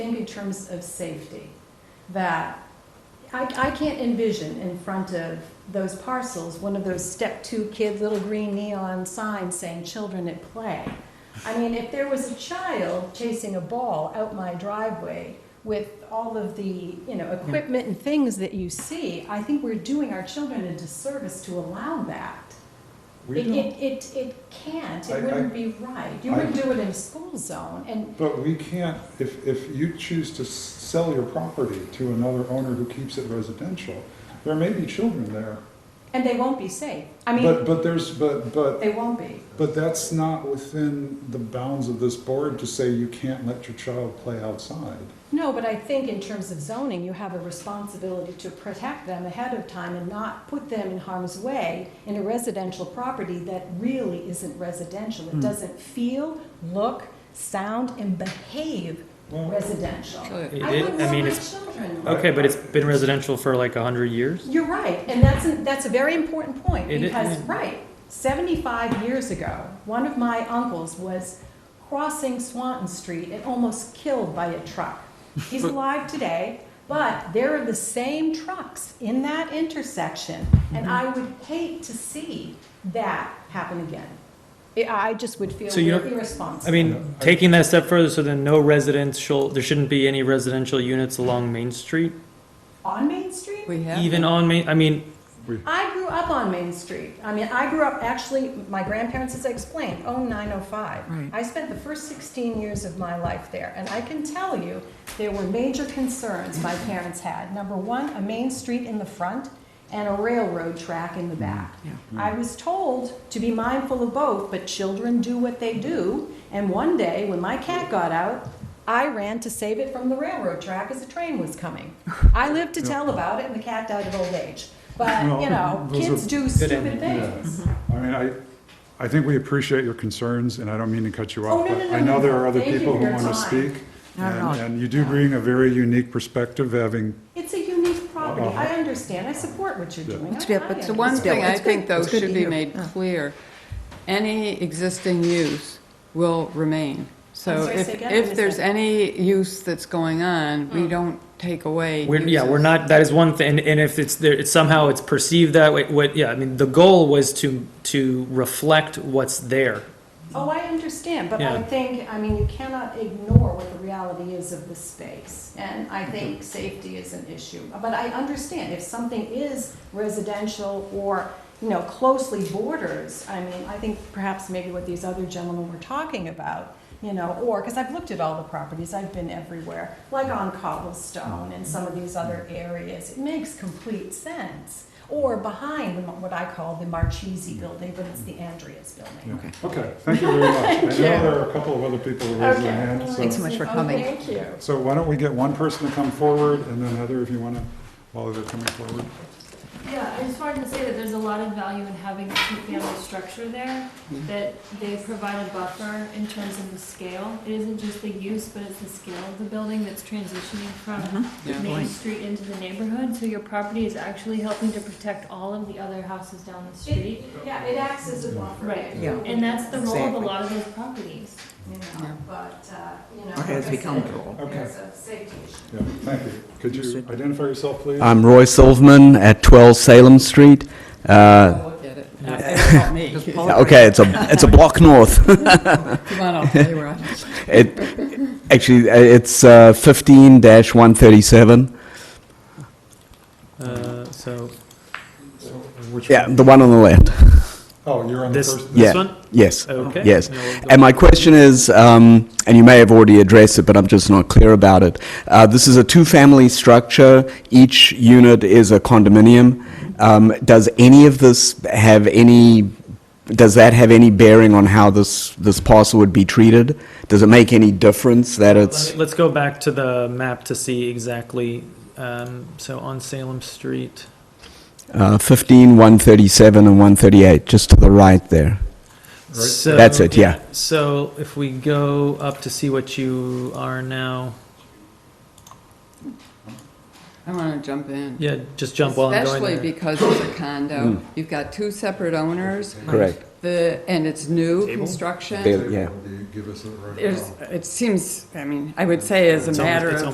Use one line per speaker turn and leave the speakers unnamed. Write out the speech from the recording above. think in terms of safety, that I, I can't envision in front of those parcels, one of those step two kids, little green neon signs saying children at play. I mean, if there was a child chasing a ball out my driveway with all of the, you know, equipment and things that you see, I think we're doing our children a disservice to allow that.
We
It,
don't,
it, it, it can't,
I- I-
it wouldn't be right. You
I-
wouldn't do it in a school zone, and
but we can't, if, if you choose to s- sell your property to another owner who keeps it residential, there may be children there.
And they won't be safe. I
But,
mean,
but there's, but, but,
they won't be.
but that's not within the bounds of this board to say you can't let your child play outside.
No, but I think in terms of zoning, you have a responsibility to protect them ahead of time and not put them in harm's way in a residential property that really isn't residential.
Hmm.
It doesn't feel, look, sound, and behave
Well-
residential. I
It is-
wouldn't
I
want
mean,
my
it's-
children.
Okay, but it's been residential for like a hundred years.
You're right, and that's, a- that's a very important point,
It is-
because, right, seventy-five years ago, one of my uncles was crossing Swanton Street and almost killed by a truck. He's alive today, but there are the same trucks in that intersection, and
Mm-hmm.
I would hate to see that happen again. I- I just would feel
So you don't-
irresponsible.
I mean, taking that step further, so then no residential, there shouldn't be any residential units along Main Street,
On Main Street?
We have.
even on Main, I mean,
I grew up on Main Street. I mean, I grew up, actually, my grandparents, as I explained, owned 905.
Right.
I spent the first 16 years of my life there, and I can tell you, there were major concerns my parents had. Number one, a main street in the front and a railroad track in the back.
Mm, Yeah.
I was told to be mindful of both, but children do what they do, and one day, when my cat got out, I ran to save it from the railroad track as a train was coming. I lived to tell about it, and the cat died of old age. But, Uh, you know,
Well, those
kids
are-
do stupid things.
I mean, I, I think we appreciate your concerns, and I don't mean to cut you
Oh,
off,
no, no,
but
no,
I know there are
no.
other
Thank you
people
for
who
your
want to
time.
speak.
Not at all.
And, and you do bring a very unique perspective, having,
It's a unique property. I understand. I support what you're
Uh-huh. Yeah.
doing.
It's
I-
good,
I
but So
understand.
one thing I
it's
think
good-
though
it's good
should
to
be
hear.
made clear, any existing use will remain.
I'm
So
sorry,
if,
say again, I
if
missed
there's
that. Oh.
any use that's going on, we don't take away.
we're, yeah, we're
uses.
not, that is one thing, and if it's there, it's somehow it's perceived that way, what, yeah, I mean, the goal was to, to reflect what's there.
Oh, I understand, but I
Yeah.
think, I mean, you cannot ignore what the reality is of the space. And I think safety is an issue. But I understand if something is residential or, you know, closely borders, I mean, I think perhaps maybe what these other gentlemen were talking about, you know, or, because I've looked at all the properties, I've been everywhere, like on Cobblestone and some of these other areas. It makes complete sense. Or behind the- what I call the Marchese building, but it's the Andreas building.
yeah. okay, thank you very much. I know there are a couple of other people who raised their hand, so.
Thanks so much for coming.
Oh, Thank you.
So why don't we get one person to come forward, and then Heather, if you want to, while they're coming forward.
Yeah, I just wanted to say that there's a lot of value in having a two-family structure there,
Mm-hmm.
that they provide a buffer in terms of the scale. It isn't just the use, but it's the scale of the building that's transitioning from
Mm-hmm. Yeah.
Main
Point.
Street into the neighborhood. So your property is actually helping to protect all of the other houses down
It,
the street.
yeah, it acts as a buffer.
Right,
Yeah.
and that's the role of a
Exactly.
lot of those properties.
You know,
Yeah.
but, uh, you know.
It has
like I
become
said,
the role.
Okay.
There's a safety issue.
Yeah, thank you. Could you identify yourself, please?
I'm Roy Silverman at 12 Salem Street. Uh,
Look at it. It's not me.
okay, it's a it's a block north.
Come on, I'll tell you where I am.
it actually uh, it's uh, 15-137.
Uh, so,
So, Which
Yeah,
one?
the one on the left.
Oh, you're on the
this,
first.
Yeah.
this one?
Yes.
Okay.
Yes.
No, we'll go-
And my question is, um, and you may have already addressed it, but I'm just not clear about it. Uh, this is a two-family structure. Each unit is a condominium. Um, does any of this have any? Does that have any bearing on how this this parcel would be treated? Does it make any difference that it's?
Let me- Let's go back to the map to see exactly, um, so on Salem Street.
Uh, 15, 137, and 138, just to the right there.
So-
That's it, yeah.
So if we go up to see what you are now,
I want to jump in.
yeah, just jump while I'm going
Especially
there.
because it's a condo. You've got two separate owners.
Correct.
the, and it's new
Table?
construction.
They- yeah.
Would you Give us a.
There's, it seems, I mean, I would say as a
It's almost-
matter
it's
of